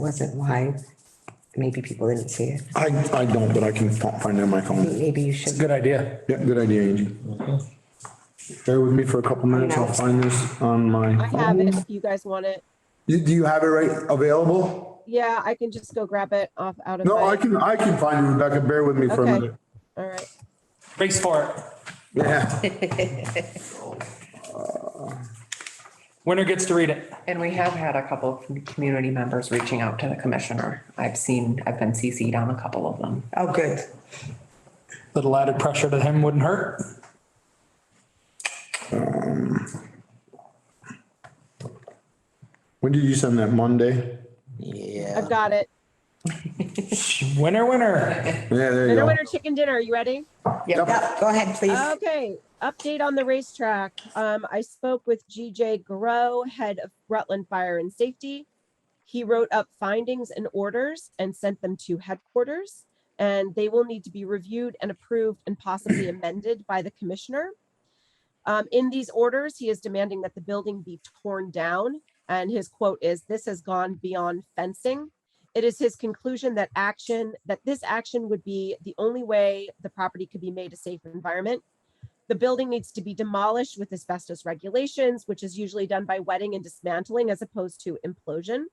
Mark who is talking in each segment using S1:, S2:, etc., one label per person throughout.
S1: wasn't live, maybe people didn't see it.
S2: I, I don't, but I can fi- find it on my phone.
S1: Maybe you should.
S3: Good idea.
S2: Yeah, good idea, Angie. Bear with me for a couple minutes. I'll find this on
S4: I
S2: my.
S4: have it if you guys want it.
S2: Do do you have it right available?
S4: Yeah, I can just go grab it off out of
S2: No, I
S4: my,
S2: can, I can find it, Rebecca. Bear with me for a
S4: Okay.
S2: minute.
S4: all right.
S3: Race for it.
S2: Yeah,
S3: Winner gets to read it.
S5: And we have had a couple of community members reaching out to the commissioner. I've seen, I've been CC'd on a couple of them.
S1: Oh, good.
S3: Little added pressure to him wouldn't hurt.
S2: when did you send that? Monday?
S4: I've got it.
S3: Winner, winner.
S2: Yeah, there you
S4: Winner,
S2: go.
S4: winner, chicken dinner. You ready?
S1: Yeah, go ahead, please.
S4: Okay, update on the racetrack. Um, I spoke with GJ Grow, head of Rutland Fire and Safety. He wrote up findings and orders and sent them to headquarters, and they will need to be reviewed and approved and possibly amended by the commissioner. Um, in these orders, he is demanding that the building be torn down, and his quote is, "This has gone beyond fencing." it is his conclusion that action that this action would be the only way the property could be made a safe environment the building needs to be demolished with asbestos regulations which is usually done by wetting and dismantling as opposed to implosion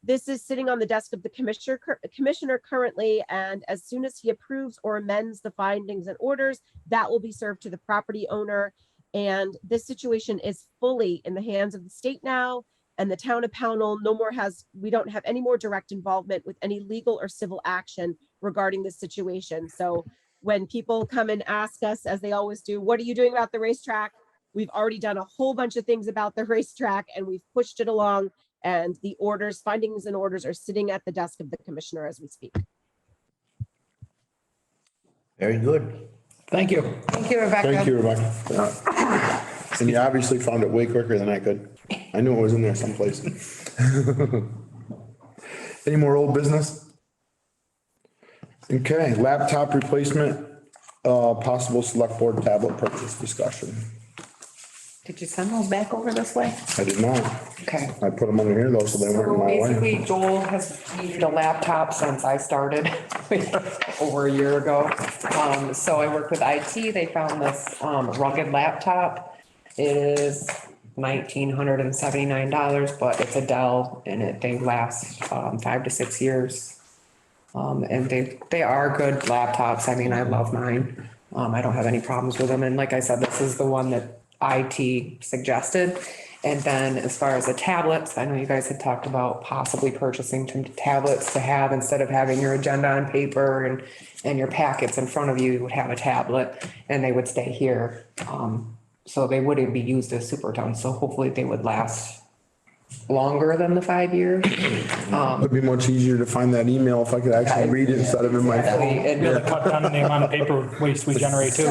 S4: this is sitting on the desk of the commissioner cur- commissioner currently and as soon as he approves or amends the findings and orders that will be served to the property owner and this situation is fully in the hands of the state now and the town of Pownell no more has, we don't have any more direct involvement with any legal or civil action regarding this situation. So when people come and ask us, as they always do, what are you doing about the racetrack? We've already done a whole bunch of things about the racetrack and we've pushed it along. And the orders, findings and orders are sitting at the desk of the commissioner as we speak.
S6: Very good.
S3: Thank you.
S5: Thank you, Rebecca.
S2: Thank you, Rebecca. Yeah. And you obviously found it way quicker than I could. I knew it was in there someplace. Any more old business? Okay, laptop replacement, uh, possible select board tablet purchase discussion.
S5: Did you send those back over this way?
S2: I did not.
S5: Okay.
S2: I put them under here though, so they weren't in
S5: So
S2: my way.
S5: basically Joel has needed a laptop since I started over a year ago. Um, so I worked with IT. They found this, um, rugged laptop. It is nineteen hundred and seventy-nine dollars, but it's a Dell and it, they last, um, five to six years. Um, and they, they are good laptops. I mean, I love mine. Um, I don't have any problems with them. And like I said, this is the one that IT suggested. And then as far as the tablets, I know you guys had talked about possibly purchasing some tablets to have instead of having your agenda on paper and, and your packets in front of you, you would have a tablet and they would stay here. Um, so they wouldn't be used as super tons. So hopefully they would last longer than the five years. Um,
S2: It'd be much easier to find that email if I could actually read it instead of in my phone.
S5: and-
S3: Really cut down on the amount of paper waste we generate too.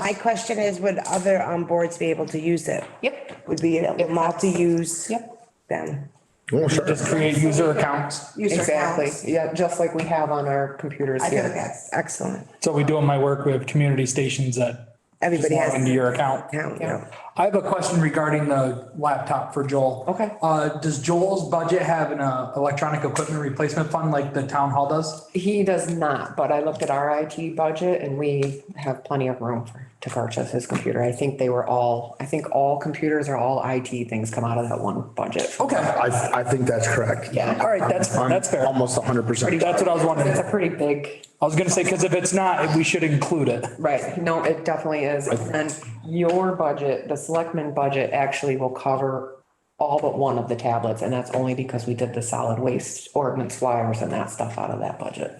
S1: My question is, would other um boards be able to use it?
S5: Yep.
S1: Would be a multi-use?
S5: Yep.
S1: Then.
S2: Oh, sure.
S3: Just create user accounts.
S1: user
S5: Exactly,
S1: accounts.
S5: yeah, just like we have on our computers
S1: I
S5: here.
S1: think that's excellent.
S3: So we do in my work, we have community stations that
S1: Everybody
S3: log into
S1: has.
S3: your account.
S1: account,
S5: Yeah.
S1: yeah.
S3: I have a question regarding the laptop for Joel.
S5: Okay.
S3: Uh, does Joel's budget have an uh, electronic equipment replacement fund like the town hall does?
S5: He does not, but I looked at our IT budget and we have plenty of room for, to purchase his computer. I think they were all, I think all computers or all IT things come out of that one budget.
S3: Okay.
S2: I, I think that's correct.
S5: Yeah.
S3: All right, that's,
S2: I'm
S3: that's fair.
S2: Almost hundred percent.
S3: That's what I was wondering.
S5: It's a pretty big,
S3: I was gonna say, because if it's not, we should include it.
S5: right, no, it definitely is. And your budget, the selectman budget actually will cover all but one of the tablets and that's only because we did the solid waste ordinance flyers and that stuff out of that budget.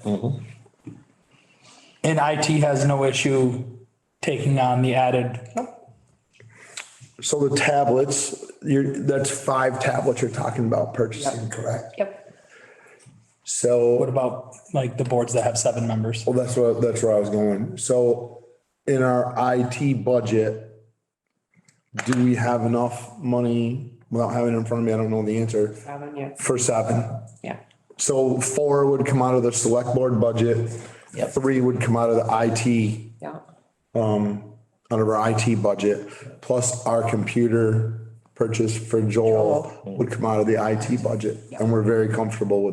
S3: And IT has no issue taking on the added,
S2: So the tablets, you're, that's five tablets you're talking about purchasing, correct?
S5: Yep.
S3: what
S2: So,
S3: about like the boards that have seven members?
S2: well, that's what, that's where I was going. So in our IT budget, do we have enough money, without having it in front of me, I don't know the answer,
S5: Seven, yeah,
S2: for seven?
S5: yeah.
S2: So four would come out of the select board budget.
S5: Yep.
S2: Three would come out of the IT
S5: Yeah,
S2: out of our IT budget, plus our computer purchase for Joel would come out of the IT budget. And we're very comfortable with